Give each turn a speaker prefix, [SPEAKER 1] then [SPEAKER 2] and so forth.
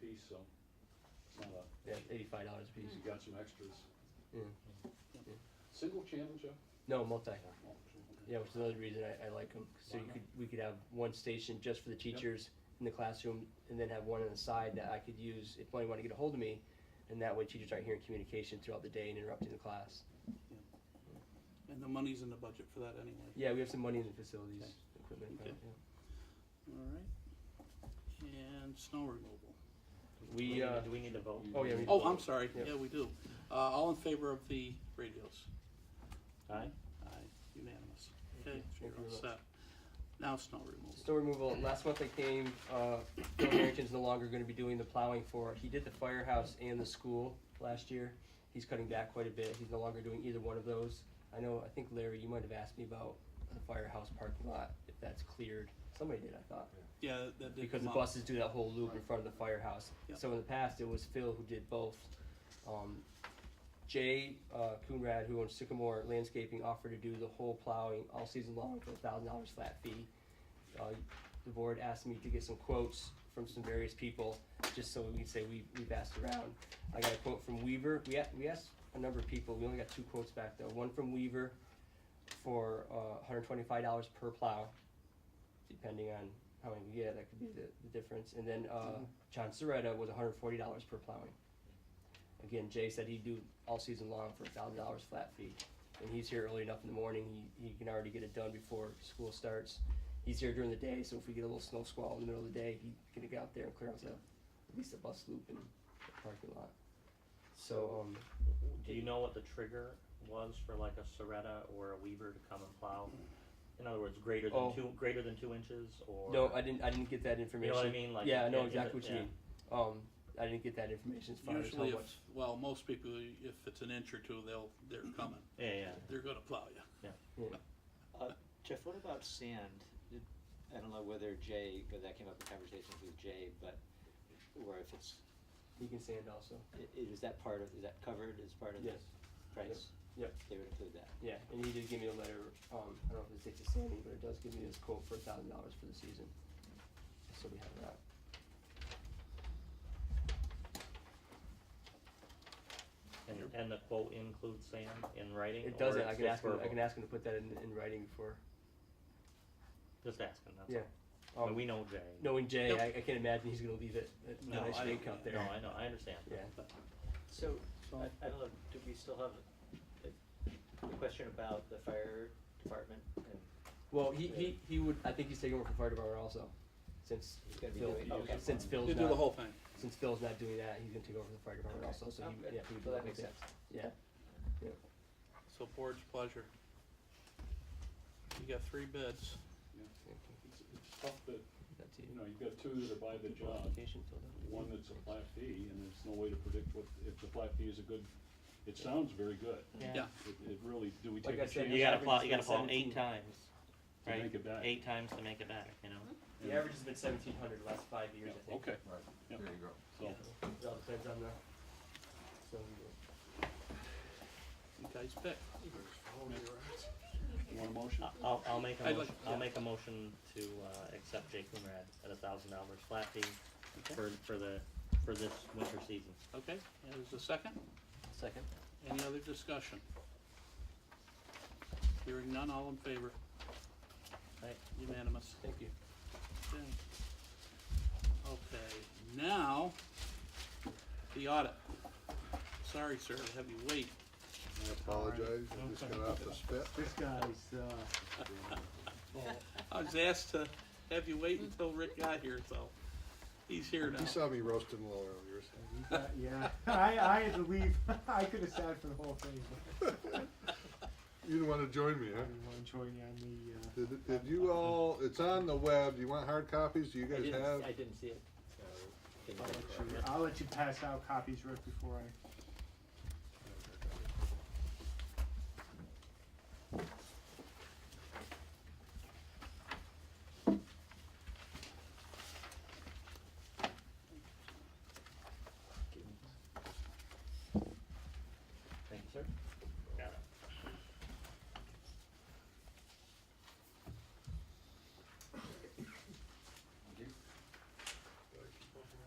[SPEAKER 1] piece, so it's not a,
[SPEAKER 2] Yeah, eighty-five dollars a piece.
[SPEAKER 1] you got some extras.
[SPEAKER 2] Yeah.
[SPEAKER 1] Single channel, Joe?
[SPEAKER 2] No, multi.
[SPEAKER 1] Oh, okay.
[SPEAKER 2] Yeah, which is another reason I, I like them. So you
[SPEAKER 1] Why
[SPEAKER 2] could, we could have one station just for the teachers in the classroom, and then have one on the side that I could use if anyone wanted to get a hold of me, and that way teachers aren't hearing communication throughout the day and interrupting the class.
[SPEAKER 3] And the money's in the budget for that anyway.
[SPEAKER 2] Yeah, we have some money in the facilities, equipment.
[SPEAKER 3] Okay.
[SPEAKER 2] yeah.
[SPEAKER 3] All right. And snow removal.
[SPEAKER 4] Do
[SPEAKER 2] We,
[SPEAKER 4] need-
[SPEAKER 2] uh,
[SPEAKER 4] Do we need to vote?
[SPEAKER 2] oh yeah. we-
[SPEAKER 3] Oh, I'm sorry.
[SPEAKER 2] Yeah.
[SPEAKER 3] Yeah, we do. Uh, all in favor of the radios?
[SPEAKER 4] Aye.
[SPEAKER 3] Aye, unanimous. Okay, so
[SPEAKER 2] Thank
[SPEAKER 3] you're
[SPEAKER 2] you
[SPEAKER 3] all
[SPEAKER 2] very
[SPEAKER 3] set. Now snow removal.
[SPEAKER 2] Snow removal, last month I came, uh, Bill Harrington's no longer gonna be doing the plowing for, he did the firehouse and the school last year. He's cutting back quite a bit, he's no longer doing either one of those. I know, I think Larry, you might have asked me about the firehouse parking lot, if that's cleared. Somebody did, I thought.
[SPEAKER 3] Yeah, that- that did
[SPEAKER 2] Because
[SPEAKER 3] come
[SPEAKER 2] the
[SPEAKER 3] up.
[SPEAKER 2] buses do that whole loop in front of the firehouse.
[SPEAKER 3] Yep.
[SPEAKER 2] So in the past, it was Phil who did both. Um, Jay uh, Coonrad, who owns Sycamore Landscaping, offered to do the whole plowing all season long for a thousand dollars flat fee. Uh, the board asked me to get some quotes from some various people, just so we can say we, we've asked around. I got a quote from Weaver. We, a- we asked a number of people. We only got two quotes back though. One from Weaver for uh, $125 per plow, depending on how many we get. That could be the, the difference. And then uh,
[SPEAKER 4] Mm-hmm.
[SPEAKER 2] John Soretta was $140 per plowing. Again, Jay said he'd do all season long for $1,000 flat fee. And he's here early enough in the morning. He, he can already get it done before school starts. He's here during the day, so if we get a little snow squall in the middle of the day, he can get out there and clear out the, at least the bus loop and the parking lot. So, um,
[SPEAKER 4] Do you know what the trigger was for like a Soretta or a Weaver to come and plow? In other words, greater
[SPEAKER 2] Oh.
[SPEAKER 4] than two, greater than two inches or?
[SPEAKER 2] no, I didn't, I didn't get that
[SPEAKER 4] You
[SPEAKER 2] information.
[SPEAKER 4] know what I mean? Like
[SPEAKER 2] Yeah, I know
[SPEAKER 4] is
[SPEAKER 2] exactly
[SPEAKER 4] it-
[SPEAKER 2] what you
[SPEAKER 4] yeah.
[SPEAKER 2] mean. Um, I didn't get that information as far as how
[SPEAKER 3] Usually
[SPEAKER 2] much.
[SPEAKER 3] if, well, most people, if it's an inch or two, they'll, they're coming.
[SPEAKER 4] Yeah, yeah.
[SPEAKER 3] They're gonna plow you.
[SPEAKER 2] Yeah.
[SPEAKER 5] Uh, Jeff, what about sand? Did- I don't know whether Jay, but that came up in conversations with Jay, but, or if it's,
[SPEAKER 2] You can sand also.
[SPEAKER 5] i- i- is that part of, is that covered as part of the
[SPEAKER 2] Yes.
[SPEAKER 5] price?
[SPEAKER 2] Yep.
[SPEAKER 5] They would include that.
[SPEAKER 2] Yeah, and he did give me a letter, um, I don't know if it's Dick Sandy, but it does give me this quote for a thousand dollars for the season. So we have that.
[SPEAKER 4] And, and the quote includes sand in writing?
[SPEAKER 2] It
[SPEAKER 4] or
[SPEAKER 2] doesn't,
[SPEAKER 4] it's
[SPEAKER 2] I can
[SPEAKER 4] just
[SPEAKER 2] ask him, I
[SPEAKER 4] verbal?
[SPEAKER 2] can ask him to put that in, in writing before,
[SPEAKER 4] Just asking, that's
[SPEAKER 2] yeah.
[SPEAKER 4] all. But
[SPEAKER 2] Um,
[SPEAKER 4] we know Jay.
[SPEAKER 2] Knowing Jay,
[SPEAKER 3] Yep.
[SPEAKER 2] I, I can't imagine he's gonna leave it at
[SPEAKER 3] No,
[SPEAKER 2] nice
[SPEAKER 3] I
[SPEAKER 2] big
[SPEAKER 3] don't-
[SPEAKER 2] cup
[SPEAKER 4] No,
[SPEAKER 2] there.
[SPEAKER 4] I know, I understand.
[SPEAKER 2] Yeah,
[SPEAKER 5] So,
[SPEAKER 3] So-
[SPEAKER 5] I, I don't know, do we still have a, a question about the fire department and
[SPEAKER 2] well, he, he, he would, I think he's taking over from fire department also, since
[SPEAKER 5] He's gonna be
[SPEAKER 2] Phil,
[SPEAKER 5] doing- okay.
[SPEAKER 2] since Phil's
[SPEAKER 3] You do the
[SPEAKER 2] not-
[SPEAKER 3] whole thing.
[SPEAKER 2] since Phil's not doing that, he's gonna take over the fire department also, so
[SPEAKER 5] Okay.
[SPEAKER 2] he, yeah, he would do
[SPEAKER 5] Well,
[SPEAKER 2] the
[SPEAKER 5] that
[SPEAKER 2] whole
[SPEAKER 5] makes
[SPEAKER 2] thing.
[SPEAKER 5] sense.
[SPEAKER 2] Yeah, yeah.
[SPEAKER 3] So board's pleasure. You got three bids.
[SPEAKER 1] It's it's tough that,
[SPEAKER 2] That's
[SPEAKER 1] you know, you've got two that are by the job,
[SPEAKER 2] Application filled out.
[SPEAKER 1] one that's a flat fee, and there's no way to predict what, if the flat fee is a good, it sounds very good.
[SPEAKER 3] Yeah,
[SPEAKER 1] It, it really, do we
[SPEAKER 2] Like
[SPEAKER 1] take
[SPEAKER 2] I
[SPEAKER 1] a
[SPEAKER 2] said,
[SPEAKER 1] chance
[SPEAKER 4] You
[SPEAKER 2] Yeah.
[SPEAKER 1] to
[SPEAKER 4] gotta plow, you gotta plow
[SPEAKER 2] Seventeen.
[SPEAKER 4] eight times, right?
[SPEAKER 1] make it back?
[SPEAKER 4] Eight times to make it back, you know?
[SPEAKER 2] The average has been seventeen hundred the last five years, I think.
[SPEAKER 1] Okay,
[SPEAKER 6] Right,
[SPEAKER 1] Yep.
[SPEAKER 6] there you go.
[SPEAKER 1] so,
[SPEAKER 2] It all depends on the. so,
[SPEAKER 3] you guys pick.
[SPEAKER 1] you want a motion?
[SPEAKER 4] I- I'll, I'll make a
[SPEAKER 3] I'd
[SPEAKER 4] motion,
[SPEAKER 3] like-
[SPEAKER 4] I'll
[SPEAKER 3] yeah.
[SPEAKER 4] make a motion to, uh, accept Jay Coonrad at a thousand dollars flat fee for, for the, for this winter season.
[SPEAKER 3] Okay, and there's a second.
[SPEAKER 2] Second?
[SPEAKER 3] Any other discussion? Hearing none, all in favor?
[SPEAKER 4] Right.
[SPEAKER 3] Unanimous.
[SPEAKER 2] Thank you.
[SPEAKER 3] Okay, Okay. now, the audit. Sorry, sir, to have you wait.
[SPEAKER 6] I apologize, I just got off the spit.
[SPEAKER 3] I was asked to have you wait until Rick got here, so he's here now.
[SPEAKER 6] You saw me roasting a little earlier, so
[SPEAKER 7] Uh, yeah, I, I had to leave. I could have sat for the whole thing, but
[SPEAKER 6] you didn't want to join me, huh?
[SPEAKER 7] I didn't want to join you on the. Uh,
[SPEAKER 6] Did, did you all, it's on the web, do you want hard copies, do you
[SPEAKER 5] I
[SPEAKER 6] guys
[SPEAKER 5] didn't, I
[SPEAKER 6] have?
[SPEAKER 5] didn't see it, so. didn't
[SPEAKER 7] uh, I'll
[SPEAKER 5] take
[SPEAKER 7] let
[SPEAKER 5] it.
[SPEAKER 7] you. I'll let you pass out copies right before I